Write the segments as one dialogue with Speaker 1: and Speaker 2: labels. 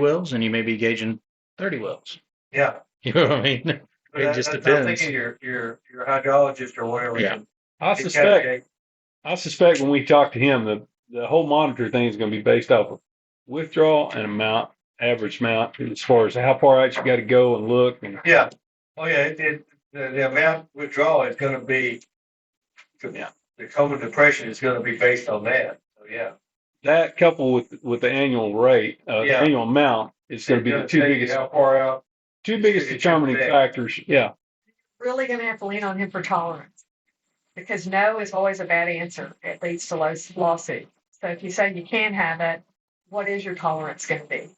Speaker 1: wells and you may be gauging thirty wells.
Speaker 2: Yeah.
Speaker 1: You know what I mean?
Speaker 2: but
Speaker 1: It
Speaker 2: that-
Speaker 1: just
Speaker 2: that's- I'm
Speaker 1: depends.
Speaker 2: Thinking your, your, your hydrologist or whatever.
Speaker 1: Yeah.
Speaker 2: can-
Speaker 3: I
Speaker 2: can
Speaker 3: suspect,
Speaker 2: calculate.
Speaker 3: I suspect when we talk to him, the, the whole monitor thing is going to be based off of withdrawal and amount, average amount, as far as how far out you got to go and look. And
Speaker 2: Yeah. Oh, yeah, it, it, the, the amount withdrawal is gonna be.
Speaker 3: Yeah.
Speaker 2: The COVID depression is gonna be based on that, so yeah.
Speaker 3: that coupled with, with the annual rate, uh,
Speaker 2: Yeah.
Speaker 3: annual amount, is going to be the two
Speaker 2: Tell you
Speaker 3: biggest,
Speaker 2: How far out?
Speaker 3: two biggest
Speaker 2: it's
Speaker 3: determining
Speaker 2: big.
Speaker 3: factors. Yeah.
Speaker 4: really gonna have to lean on him for tolerance. Because no is always a bad answer. It leads to lo- lawsuit. So if you say you can have it, what is your tolerance gonna be?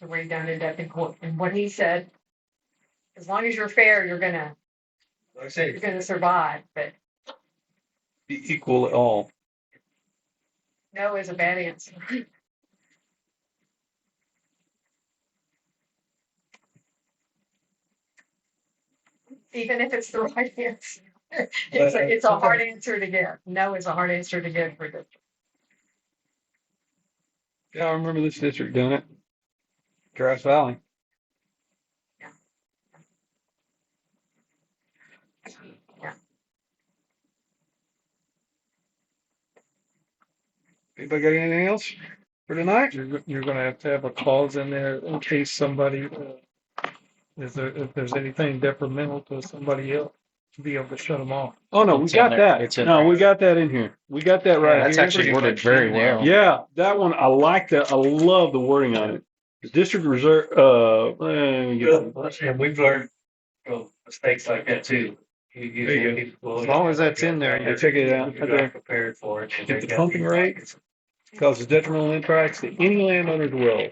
Speaker 4: To where you don't end up in court. And what he said, as long as you're fair, you're gonna,
Speaker 2: Like I
Speaker 4: you're
Speaker 2: say,
Speaker 4: gonna survive, but
Speaker 3: Be equal at all.
Speaker 4: no is a bad answer. Even if it's the right answer, it's a, it's a hard answer to give. No is a hard answer to give for the
Speaker 3: Yeah, I remember this district doing it. Grass Valley.
Speaker 4: Yeah.
Speaker 3: Anybody got anything else for tonight?
Speaker 5: You're, you're gonna have to have a clause in there in case somebody, uh, is there, if there's anything detrimental to somebody else, to be able to shut them off.
Speaker 3: Oh, no, we
Speaker 1: It's in
Speaker 3: got
Speaker 1: there.
Speaker 3: that.
Speaker 1: It's in
Speaker 3: No,
Speaker 1: there.
Speaker 3: we got that in here. We got that right here.
Speaker 1: That's actually worded very well.
Speaker 3: Yeah, that one, I like that. I love the wording on it. The district reserve, uh, let me get-
Speaker 2: And we've learned from mistakes like that too. You- you-
Speaker 5: There you
Speaker 2: you- well,
Speaker 5: As long as that's in there,
Speaker 3: you take it out.
Speaker 2: You're not prepared for it.
Speaker 3: Get the pumping rate. causes detrimental impacts to any landowner's well,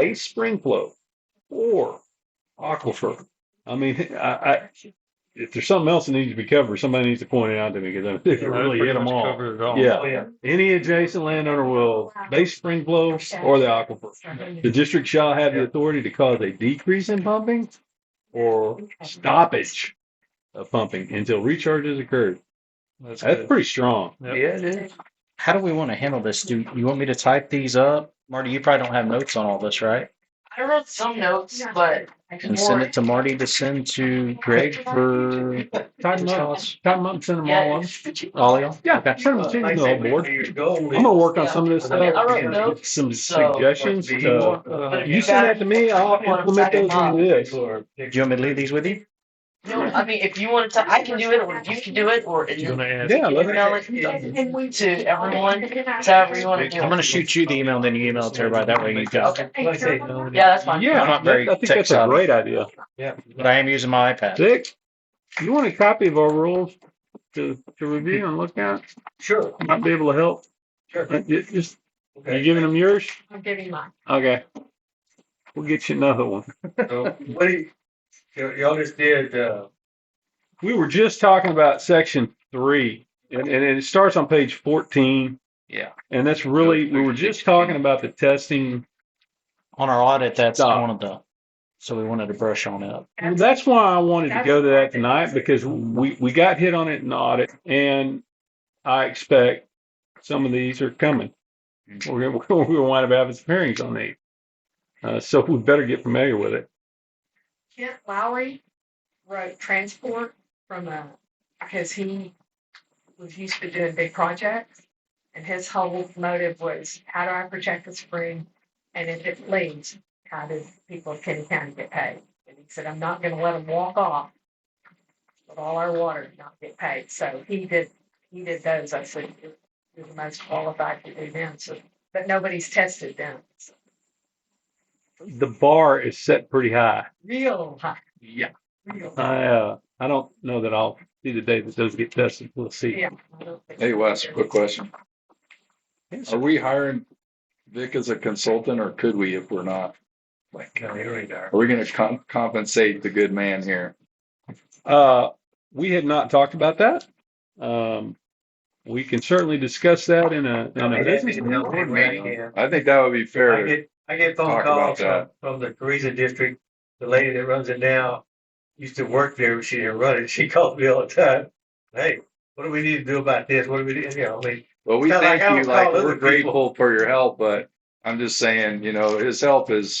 Speaker 3: bay, spring flow, or aquifer. I mean, I, I, if there's something else that needs to be covered, somebody needs to point it out to me because it really hit them all.
Speaker 5: Covered it all.
Speaker 3: Yeah.
Speaker 2: Oh, yeah.
Speaker 3: Any adjacent landowner will, base spring flow or the aquifer. The district shall have the authority to cause a decrease in pumping or stoppage of pumping until recharge has occurred.
Speaker 5: That's
Speaker 3: That's
Speaker 5: good.
Speaker 3: pretty strong.
Speaker 5: Yep.
Speaker 2: it is.
Speaker 1: How do we want to handle this? Do you want me to type these up? Marty, you probably don't have notes on all this, right?
Speaker 6: I wrote some notes, but
Speaker 1: And send it to Marty to send to Greg for
Speaker 3: Time them up, time them up, and send them all
Speaker 6: yeah,
Speaker 3: on.
Speaker 1: all y'all.
Speaker 3: Yeah, send
Speaker 1: Uh,
Speaker 3: them, send them
Speaker 2: Like I
Speaker 3: to the
Speaker 2: said,
Speaker 3: board.
Speaker 2: where you're going
Speaker 3: I'm
Speaker 2: with-
Speaker 3: gonna work on some of this
Speaker 2: I mean,
Speaker 3: stuff.
Speaker 6: I wrote
Speaker 3: and
Speaker 6: notes,
Speaker 3: get Some
Speaker 6: so-
Speaker 3: suggestions.
Speaker 2: Like,
Speaker 3: uh,
Speaker 5: Uh,
Speaker 3: You send that to me, I'll implement those into this.
Speaker 2: People are-
Speaker 1: Do you want me to leave these with you?
Speaker 6: no, I mean, if you want to, I can do it, or you can do it, or
Speaker 5: You
Speaker 6: email
Speaker 5: gonna ask?
Speaker 3: Yeah, let me,
Speaker 6: it to everyone, however you want to do
Speaker 1: I'm
Speaker 6: it.
Speaker 1: gonna shoot you the email, then you email it to everybody. That way you got it.
Speaker 6: Okay,
Speaker 2: Like I say, no,
Speaker 6: yeah, that's fine.
Speaker 3: yeah,
Speaker 1: I'm not very
Speaker 3: I think that's a
Speaker 1: tech-savvy.
Speaker 3: great idea.
Speaker 2: yeah.
Speaker 1: But I am using my iPad.
Speaker 3: Dick, you want a copy of our rules to, to review and look at?
Speaker 2: Sure,
Speaker 3: Might be able to help.
Speaker 2: sure.
Speaker 3: Uh, ju- Just, you
Speaker 2: Okay.
Speaker 3: giving them yours?
Speaker 4: I'm giving mine.
Speaker 3: Okay. We'll get you another one.
Speaker 2: So, What do you, y- y'all just did, uh,
Speaker 3: We were just talking about section three, and, and it starts on page fourteen.
Speaker 1: Yeah.
Speaker 3: And that's really, we were just talking about the testing
Speaker 1: On our audit, that's
Speaker 3: Stop.
Speaker 1: one of the, so we wanted to brush on it.
Speaker 3: Well, that's why I wanted to
Speaker 4: That's
Speaker 3: go to
Speaker 4: why I
Speaker 3: that
Speaker 4: did
Speaker 3: tonight
Speaker 4: it.
Speaker 3: because we, we got hit on it in audit and I expect some of these are coming. We're gonna, we're gonna wind up having some hearings on these. Uh, so we better get familiar with it.
Speaker 4: Kent Lowry wrote transport from a, because he was used to doing big projects. And his whole motive was, how do I protect the spring? And if it leaves, how do people of Kenny County get paid? And he said, I'm not gonna let them walk off with all our water and not get paid. So he did, he did those. I said, you're you're the most qualified to do them. So, but nobody's tested them. It's
Speaker 3: The bar is set pretty high.
Speaker 4: Real high,
Speaker 3: Yeah.
Speaker 4: real. high.
Speaker 3: I, uh, I don't know that I'll see the day that those get tested. We'll see.
Speaker 4: Yeah. I don't think-
Speaker 7: Hey Wes, quick question. Are we hiring Vic as a consultant or could we if we're not? Like,
Speaker 2: no, you already are.
Speaker 7: are we gonna com- compensate the good man here?
Speaker 3: Uh, we had not talked about that. Um, we can certainly discuss that in a, in a business.
Speaker 2: Board meeting, yeah.
Speaker 7: I think that would be
Speaker 2: I
Speaker 7: fair.
Speaker 2: get, I get phone
Speaker 7: Talk about
Speaker 2: calls from, from the Teresa district. The lady that runs it now used to work there, but she didn't run it. She called me all the time. Hey, what do we need to do about this? What do we, do? you know, I mean,
Speaker 7: Well, we
Speaker 2: Sound like
Speaker 7: thank
Speaker 2: I
Speaker 7: you,
Speaker 2: don't
Speaker 7: like,
Speaker 2: call other
Speaker 7: we're
Speaker 2: people.
Speaker 7: grateful for your help, but I'm just saying, you know, his help is